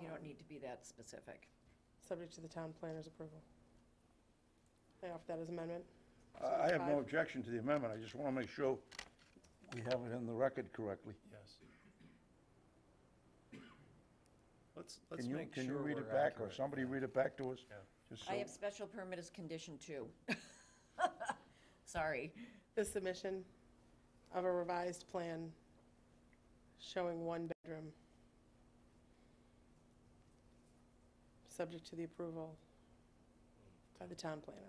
You don't need to be that specific. subject to the town planner's approval. I offer that as amendment. I I have no objection to the amendment, I just want to make sure we have it in the record correctly. Yes. Let's, let's Can you, make sure can you read we're it back, or accurate. somebody read it back to us? Yeah. Just I so- have special permit as condition two. Sorry. The submission of a revised plan showing one bedroom, subject to the approval by the town planner.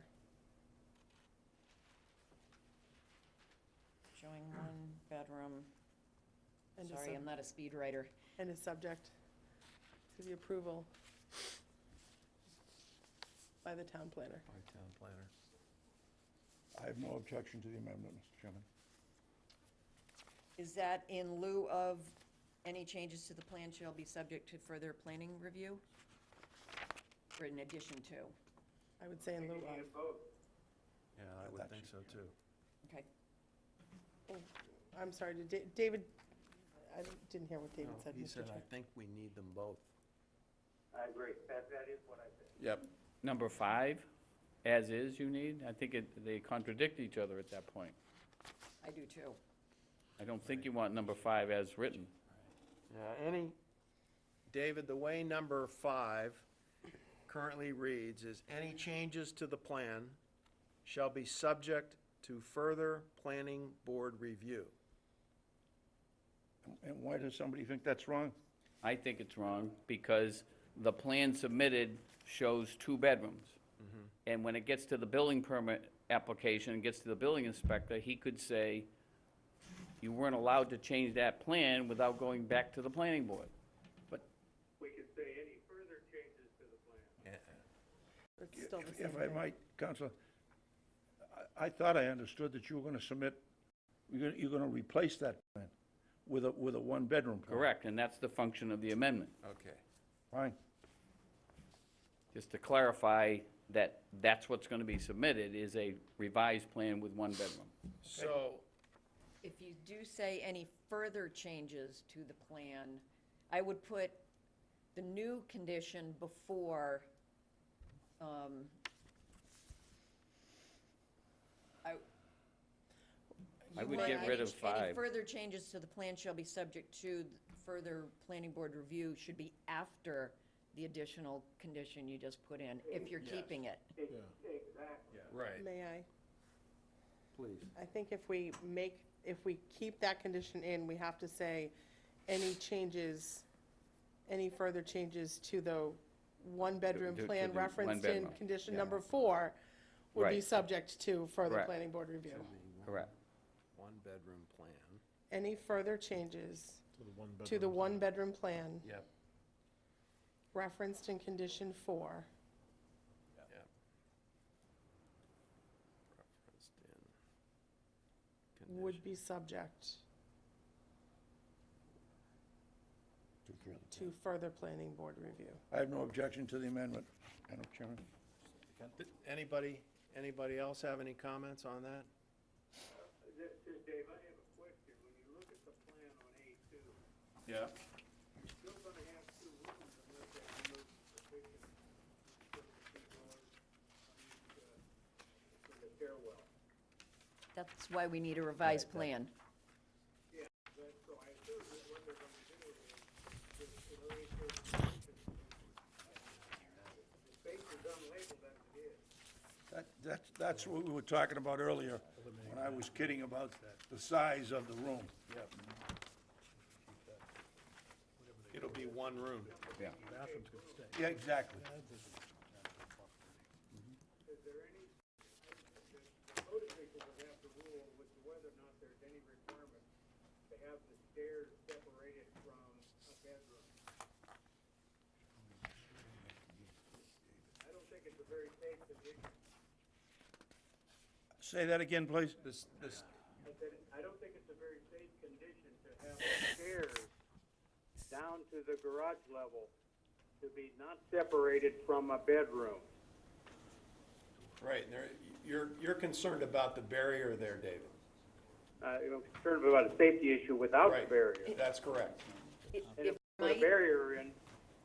Showing one bedroom. And is Sorry, sub- I'm not a speed writer. And is subject to the approval by the town planner. By town planner. I have no objection to the amendment, Mr. Chairman. Is that in lieu of any changes to the plan shall be subject to further planning review? Or in addition to? I would say in lieu of. Yeah, I That would think so should too. Okay. I'm sorry, did Da- David, I didn't hear what David No, said. He Mr. said, I Chair. think we need them both. I agree. That, that is what I think. Yep. number five, as is you need, I think it, they contradict each other at that point. I do too. I don't think you want number five as written. Yeah, any. David, the way number five currently reads is, any changes to the plan shall be subject to further planning board review. And why does somebody think that's wrong? I think it's wrong because the plan submitted shows two bedrooms. And when it gets to the building permit application, it gets to the building inspector, he could say, you weren't allowed to change that plan without going back to the planning board. But We could say any further changes to the plan. It's still the If- same If I thing. might, Counselor, I, I thought I understood that you were going to submit, you're going, you're going to replace that plan with a, with a one-bedroom plan. Correct, and that's the function of the amendment, Okay. Fine. just to clarify that that's what's gonna be submitted, is a revised plan with one bedroom. So, If you do say any further changes to the plan, I would put the new condition before, um, I. I You would want get rid any- of Any five. further changes to the plan shall be subject to further planning board review should be after the additional condition you just put in, if you're keeping it. Exactly. right, May I? please. I think if we make, if we keep that condition in, we have to say, any changes, any further changes to the one-bedroom To- to plan the one referenced in bedroom. condition number four would be Right. subject to further Correct. planning board review. Correct. One-bedroom plan. Any further changes to the one-bedroom plan Yep. referenced in condition four Yep. Referenced in would be subject to further planning board review. I have no objection to the amendment, Madam Chairman. Th- Anybody, anybody else have any comments on that? This is Dave, I have a question. When you look at the plan on A two, Yeah. you're gonna have two rooms unless they remove the kitchen. Put the two doors on each, uh, For the stairwell. That's why we need a revised plan. But, so I assume that what they're gonna do is, is it'll raise those conditions. It's basically unlabeled as it is. That, that's, that's what we were talking about earlier, when I was kidding about the size of the room. It'll be one room. Yeah, exactly. Is there any, the the code official would have to rule with whether or not there's any requirement to have the stairs separated from a bedroom. I don't think it's a very safe position, Say that again, please. This, this, I said, I don't think it's a very safe condition to have the stairs down to the garage level to be not separated from a bedroom. right, and there- you're, you're concerned about the barrier there, David. Uh, I'm concerned about a safety issue without Right. the barrier. That's correct. It- And if it you put a might- barrier in,